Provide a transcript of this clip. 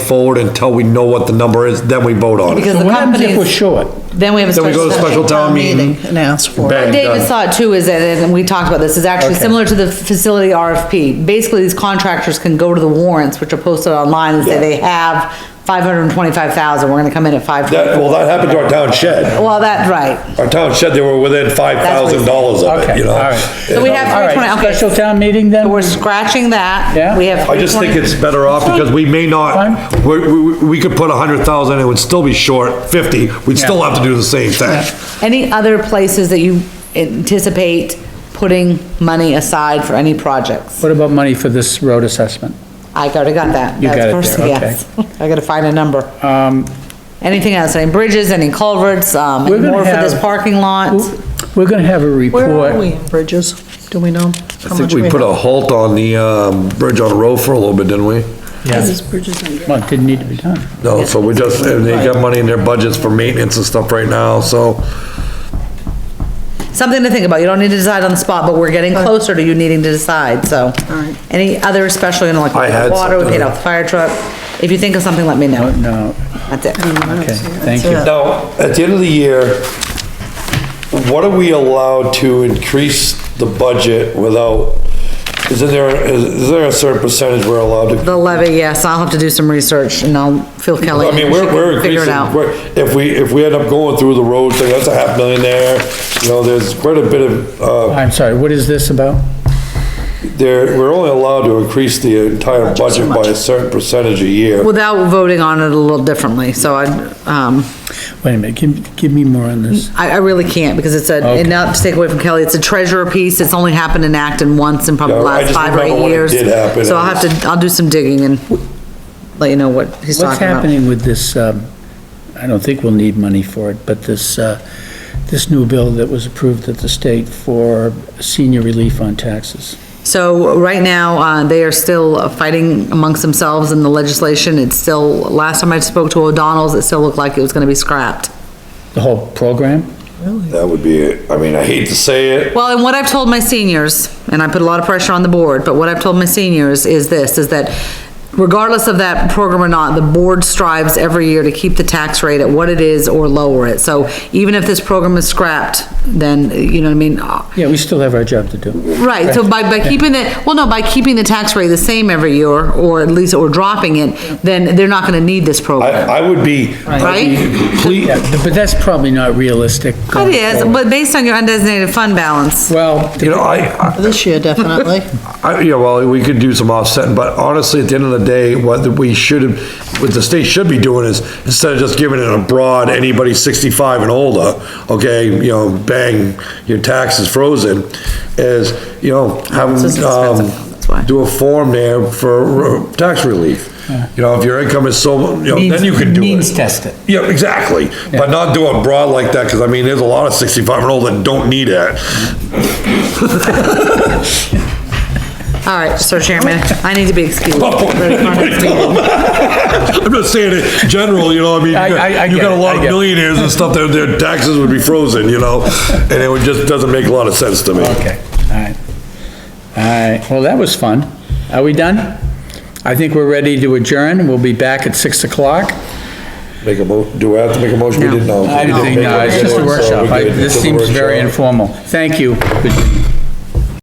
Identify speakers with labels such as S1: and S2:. S1: forward until we know what the number is, then we vote on it.
S2: Because the
S3: What happens if we're
S2: companies,
S3: short?
S2: then we have a
S1: Then we go
S2: special.
S1: to special town meeting.
S4: And ask for it.
S1: Bang,
S2: David
S1: done.
S2: saw it too, is that, and we talked about this, is actually
S3: Okay.
S2: similar to the facility RFP. Basically, these contractors can go to the warrants, which are posted online, and say they have five hundred and twenty-five thousand, we're gonna come in at five.
S1: That, well, that happened to our town shed.
S2: Well, that's right.
S1: Our town shed, they were within five thousand dollars of it,
S3: Okay,
S1: you know?
S3: all right.
S2: So we have
S3: All
S2: three
S3: right,
S2: twenty, okay,
S3: special town meeting then?
S2: so we're scratching that.
S3: Yeah.
S2: We have.
S1: I just think
S2: 320
S1: it's better off because we may not,
S3: Fine.
S1: we, we, we could put a hundred thousand, it would still be short fifty, we'd still have to do the same thing.
S2: Any other places that you anticipate putting money aside for any projects?
S3: What about money for this road assessment?
S2: I already got that.
S3: You
S2: That's
S3: got it
S2: first-
S3: there,
S2: yes. I gotta find a number.
S3: Um,
S2: Anything else, any bridges, any culverts, um, any
S3: We're gonna
S2: more for this
S3: have-
S2: parking lot?
S3: We're gonna have a report.
S4: Where are we in bridges? Do we know?
S1: I think we put a halt on the, um, bridge on the road for a little bit, didn't we?
S3: Yeah,
S4: bridges in.
S3: well, it didn't need to be done.
S1: No, so we just, and they got money in their budgets for maintenance and stuff right now, so.
S2: Something to think about, you don't need to decide on the spot, but we're getting closer to you needing to decide, so.
S4: right.
S2: Any other, especially, you know, like
S1: I had
S2: water, we
S1: something.
S2: paid off the fire truck, if you think of something, let me know,
S3: No,
S2: that's it.
S3: okay, thank you.
S1: Now, at the end of the year, what are we allowed to increase the budget without, is there, is is there a certain percentage we're allowed to?
S2: The levy, yes, I'll have to do some research, and I'll, Phil Kelly.
S1: I mean, we're,
S2: she can
S1: we're
S2: Figure it
S1: increasing,
S2: out.
S1: we're- if we, if we end up going through the road thing, that's a half million there. You know, there's quite a bit of, uh,
S3: I'm sorry, what is this about?
S1: there, we're only allowed to increase the entire budget by a certain percentage a year.
S2: Without voting on it a little differently, so I, um,
S3: Wait a minute, give, give me more on this.
S2: I, I really can't, because it's a, and not to take away from Kelly, it's a treasurer piece, it's only happened in Acton once in probably the
S1: Yeah, I
S2: last
S1: just
S2: five or
S1: remember
S2: eight
S1: when it
S2: years.
S1: did happen,
S2: So
S1: it
S2: I'll have
S1: was-
S2: to, I'll do some digging and let you know what he's
S3: What's
S2: talking about.
S3: happening with this, um, I don't think we'll need money for it, but this, uh, this new bill that was approved at the state for senior relief on taxes?
S2: So right now, uh, they are still fighting amongst themselves in the legislation, it's still, last time I spoke to O'Donnell's, it still looked like it was gonna be scrapped.
S3: The whole program?
S1: That would be, it. I mean, I hate to say it,
S2: Well, and what I've told my seniors, and I put a lot of pressure on the board, but what I've told my seniors is this, is that regardless of that program or not, the board strives every year to keep the tax rate at what it is or lower it. So even if this program is scrapped, then, you know what I mean?
S3: Yeah, we still have our job to do.
S2: Right, so by, by keeping it, well, no, by keeping the tax rate the same every year, or at least, or dropping it, then they're not gonna need this program,
S1: I, I would be,
S2: right?
S1: please,
S3: Yeah, but that's probably not realistic.
S2: It
S3: going
S2: is,
S3: forward.
S2: but based on your undesignated fund balance,
S3: Well,
S1: you know, I,
S4: This year, definitely.
S1: I, yeah, well, we could do some offsetting, but honestly, at the end of the day, what we should, what the state should be doing is, instead of just giving it abroad, anybody sixty-five and older, okay, you know, bang, your tax is frozen, is, you know, have
S2: It's
S1: them,
S2: just expensive, that's why.
S1: um, do a form there for uh, tax relief. You know, if your income is so, you know, then you can do it.
S3: Means test it.
S1: Yeah, exactly, but not do it broad like that, because I mean, there's a lot of sixty-five and older that don't need it.
S2: all right, so Chairman, I need to be excused.
S1: I'm just saying it general, you know, I mean,
S3: I- I- I
S1: you
S3: get
S1: got a
S3: it,
S1: lot
S3: I
S1: of
S3: get it.
S1: millionaires and stuff, their, their taxes would be frozen, you know? And it would just, doesn't make a lot of sense to me.
S3: Okay, all right. All right, well, that was fun. Are we done? I think we're ready to adjourn. We'll be back at 6 o'clock.
S1: Make a mo, do I have to make a motion? We
S2: No.
S1: didn't know.
S3: uh, I didn't think, no, it's just a workshop. I- This seems very informal. Thank you.